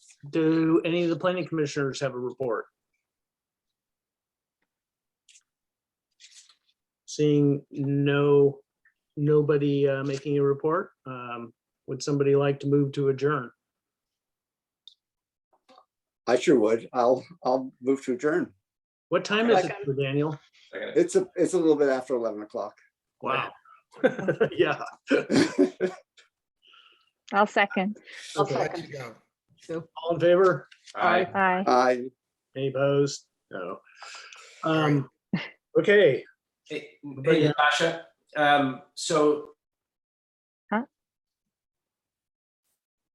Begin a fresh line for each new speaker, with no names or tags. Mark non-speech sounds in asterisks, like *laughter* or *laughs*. Do any of the planning commissioners have a report? Seeing no, nobody uh, making a report, um, would somebody like to move to adjourn?
I sure would. I'll, I'll move to adjourn.
What time is it, for Daniel?
It's a, it's a little bit after 11 o'clock. *laughs*
Wow. *laughs* Yeah.
I'll second.
I'll
Okay.
second.
All in favor?
Aye.
Aye.
I,
Any opposed? No. Um, okay,
Hey,
But
hey,
yeah.
Natasha, um, so